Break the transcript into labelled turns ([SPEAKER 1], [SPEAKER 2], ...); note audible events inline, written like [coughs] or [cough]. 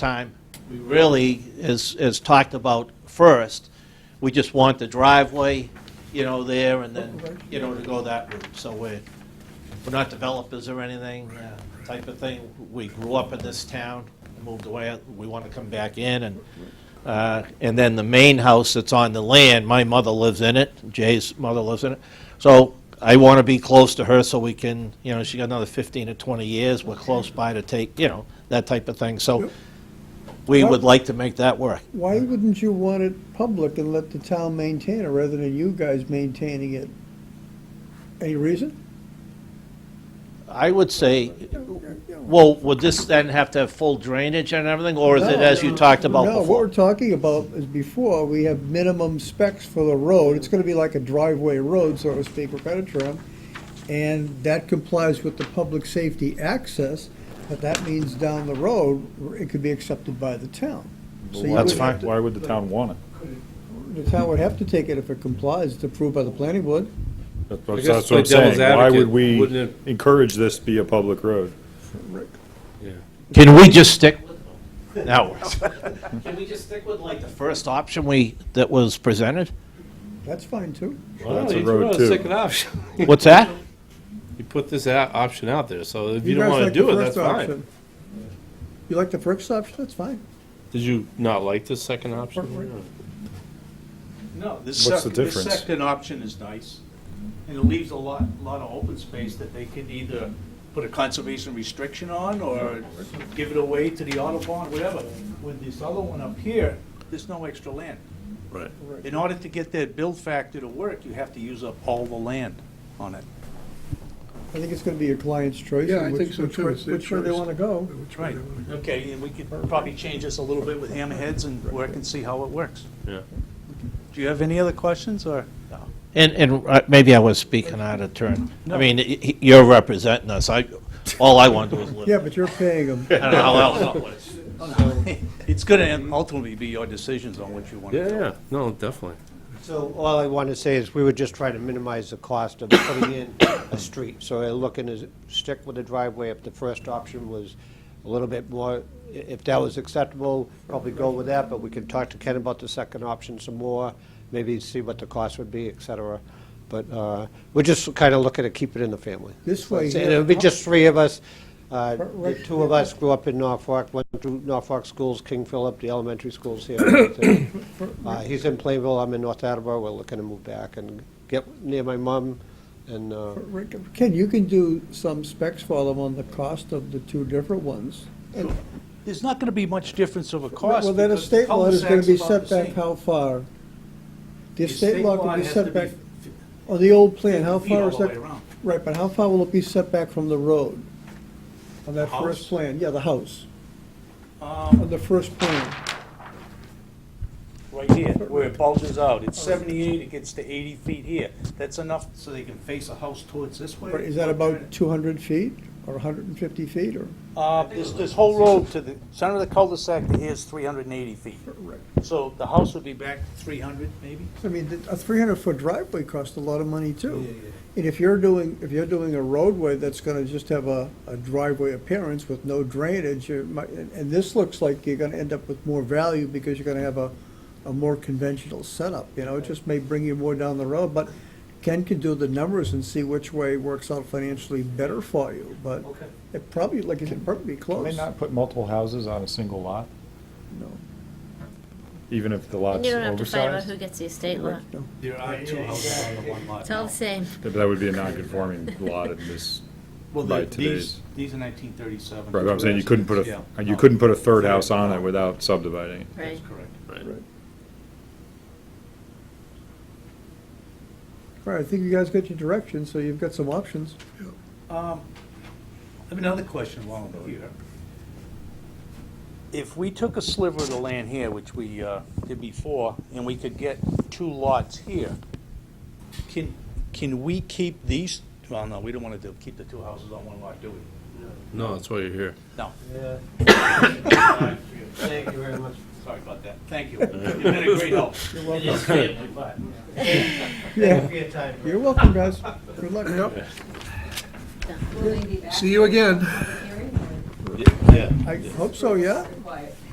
[SPEAKER 1] time we really is, is talked about first. We just want the driveway, you know, there and then, you know, to go that route. So we're, we're not developers or anything, uh, type of thing. We grew up in this town, moved away, we want to come back in and, uh, and then the main house that's on the land, my mother lives in it, Jay's mother lives in it. So I want to be close to her so we can, you know, she got another 15 or 20 years, we're close by to take, you know, that type of thing. So we would like to make that work.
[SPEAKER 2] Why wouldn't you want it public and let the town maintain it rather than you guys maintaining it? Any reason?
[SPEAKER 1] I would say, well, would this then have to have full drainage and everything, or is it as you talked about
[SPEAKER 2] No, what we're
[SPEAKER 1] before?
[SPEAKER 2] talking about is before, we have minimum specs for the road. It's gonna be like a driveway road, so to speak, with better term. And that complies with the public safety access, but that means down the road, it could be accepted by the town. So you
[SPEAKER 1] That's
[SPEAKER 2] would
[SPEAKER 1] fine.
[SPEAKER 2] have to-
[SPEAKER 3] Why would the town want it?
[SPEAKER 2] The town would have to take it if it complies. It's approved by the planning board.
[SPEAKER 3] That's
[SPEAKER 4] I
[SPEAKER 3] what
[SPEAKER 4] guess
[SPEAKER 3] that's
[SPEAKER 4] play
[SPEAKER 3] what I'm saying.
[SPEAKER 4] devil's
[SPEAKER 3] Why would
[SPEAKER 4] advocate,
[SPEAKER 3] we
[SPEAKER 4] wouldn't
[SPEAKER 3] encourage this to be a public road?
[SPEAKER 4] Yeah,
[SPEAKER 1] Can we just stick? Now, [laughs] can we just stick with like the first option we, that was presented?
[SPEAKER 2] That's fine, too.
[SPEAKER 3] Well,
[SPEAKER 4] Well,
[SPEAKER 3] that's a
[SPEAKER 4] you
[SPEAKER 3] road,
[SPEAKER 4] put out
[SPEAKER 3] too.
[SPEAKER 4] second option. [laughs]
[SPEAKER 1] What's that?
[SPEAKER 4] You put this out, option out there, so if you
[SPEAKER 2] guys
[SPEAKER 4] don't wanna
[SPEAKER 2] like
[SPEAKER 4] do
[SPEAKER 2] the
[SPEAKER 4] it,
[SPEAKER 2] first
[SPEAKER 4] that's fine.
[SPEAKER 2] option. You like the first option? That's fine.
[SPEAKER 4] Did you not like this second option?
[SPEAKER 5] No, this
[SPEAKER 3] What's the
[SPEAKER 5] second, this
[SPEAKER 3] difference?
[SPEAKER 5] second option is nice, and it leaves a lot, lot of open space that they can either put a conservation restriction on, or give it away to the Audubon, whatever. With this other one up here, there's no extra land.
[SPEAKER 4] Right.
[SPEAKER 5] In order to get that build factor to work, you have to use up all the land on it.
[SPEAKER 2] I think it's gonna be your client's choice.
[SPEAKER 6] Yeah,
[SPEAKER 2] and
[SPEAKER 6] I
[SPEAKER 2] which-
[SPEAKER 6] think so,
[SPEAKER 2] which
[SPEAKER 6] too.
[SPEAKER 2] way-
[SPEAKER 6] It's their
[SPEAKER 2] Which way they
[SPEAKER 6] choice.
[SPEAKER 2] wanna go.
[SPEAKER 6] Which way
[SPEAKER 5] Right,
[SPEAKER 6] they wanna go.
[SPEAKER 5] okay, and we could probably change this a little bit with hammerheads and work and see how it works.
[SPEAKER 4] Yeah.
[SPEAKER 5] Do you have any other questions, or?
[SPEAKER 1] And, and uh, maybe I was speaking out of turn. I
[SPEAKER 5] No.
[SPEAKER 1] mean, y- y- you're representing us. I, all I want to do is live.
[SPEAKER 2] Yeah, but you're paying
[SPEAKER 6] [laughs]
[SPEAKER 2] them.
[SPEAKER 1] I don't know how else that works.
[SPEAKER 5] [laughs] It's gonna ultimately be your decisions on what you want to
[SPEAKER 4] Yeah,
[SPEAKER 5] do.
[SPEAKER 4] yeah, no, definitely.
[SPEAKER 7] So all I want to say is, we were just trying to minimize the cost of putting in a street. So we're looking to stick with the driveway. If the first option was a little bit more, i- if that was acceptable, probably go with that, but we can talk to Ken about the second option some more, maybe see what the cost would be, et cetera. But uh, we're just kind of looking to keep it in the family.
[SPEAKER 2] This way
[SPEAKER 7] And
[SPEAKER 2] here.
[SPEAKER 7] It would be just three of us. Uh,
[SPEAKER 2] Right- right
[SPEAKER 7] The two of us grew up in Norfolk, went through Norfolk schools, King Philip, the elementary
[SPEAKER 2] [coughs]
[SPEAKER 7] schools here. Uh, He's in Plainville, I'm in North Attleboro, we're looking to move back and get near my mom, and, uh,
[SPEAKER 2] Rick, Ken, you can do some specs for them on the cost of the two different ones.
[SPEAKER 5] There's not gonna be much difference of a cost.
[SPEAKER 2] Well, then a
[SPEAKER 5] because
[SPEAKER 2] state
[SPEAKER 5] the
[SPEAKER 2] law is gonna be
[SPEAKER 5] cul-de-sac's
[SPEAKER 2] set
[SPEAKER 5] about the
[SPEAKER 2] back
[SPEAKER 5] same.
[SPEAKER 2] how far? The
[SPEAKER 5] The
[SPEAKER 2] state law can be
[SPEAKER 5] has to
[SPEAKER 2] set back,
[SPEAKER 5] f-
[SPEAKER 2] on the old plan, how
[SPEAKER 5] feet
[SPEAKER 2] far
[SPEAKER 5] all
[SPEAKER 2] is
[SPEAKER 5] the
[SPEAKER 2] that?
[SPEAKER 5] way around.
[SPEAKER 2] Right, but how far will it be set back from the road? On that
[SPEAKER 5] House?
[SPEAKER 2] first plan, yeah, the house,
[SPEAKER 5] Um,
[SPEAKER 2] on the first plan.
[SPEAKER 5] Right here, where it bulges out, it's 78, it gets to 80 feet here. That's enough so they can face a house towards this way.
[SPEAKER 2] Right, Is that about two hundred feet, or hundred and fifty feet, or?
[SPEAKER 5] Uh, This, this whole road to the center of the cul-de-sac to here is 380 feet. So the house would be back 300 maybe?
[SPEAKER 2] I mean, th- a three hundred foot driveway costs a lot of money too. And if you're doing, if you're doing a roadway that's gonna just have a, a driveway appearance with no drainage, you might, and and this looks like you're gonna end up with more value because you're gonna have a, a more conventional setup, you know, it just may bring you more down the road, but Ken can do the numbers and see which way works out financially better for you, but
[SPEAKER 5] Okay.
[SPEAKER 2] it probably, like, it's probably
[SPEAKER 3] Can they
[SPEAKER 2] close.
[SPEAKER 3] not put multiple houses on a single lot,
[SPEAKER 2] No,
[SPEAKER 3] even if the
[SPEAKER 8] And
[SPEAKER 3] lot's
[SPEAKER 8] you don't have to fight about
[SPEAKER 3] oversized?
[SPEAKER 8] who gets the estate lot.
[SPEAKER 2] no.
[SPEAKER 5] There are two houses on the one lot.
[SPEAKER 8] It's all the same.
[SPEAKER 3] That that would be a non-conforming lot in this,
[SPEAKER 5] Well,
[SPEAKER 3] by
[SPEAKER 5] the- these,
[SPEAKER 3] today's-
[SPEAKER 5] these are 1937.
[SPEAKER 3] right, but I'm saying you couldn't put
[SPEAKER 5] Yeah.
[SPEAKER 3] a, you couldn't put a third house on it without subdividing. it.
[SPEAKER 8] Right.
[SPEAKER 5] That's correct.
[SPEAKER 2] All right, I think you guys got your direction, so you've got some options.
[SPEAKER 5] Um, I have another question while I'm here. If we took a sliver of the land here, which we uh, did before, and we could get two lots here, can, can we keep these, well, no, we don't want to do, keep the two houses on one lot, do we?
[SPEAKER 4] No, that's why you're here.
[SPEAKER 5] No.
[SPEAKER 7] Thank you very much.
[SPEAKER 5] [coughs] Sorry about that. Thank you. You've been a great help.
[SPEAKER 2] Yeah,
[SPEAKER 7] for your time.
[SPEAKER 2] you're welcome, guys. Good luck.
[SPEAKER 6] See you again.
[SPEAKER 4] Yeah.
[SPEAKER 2] I hope so, yeah.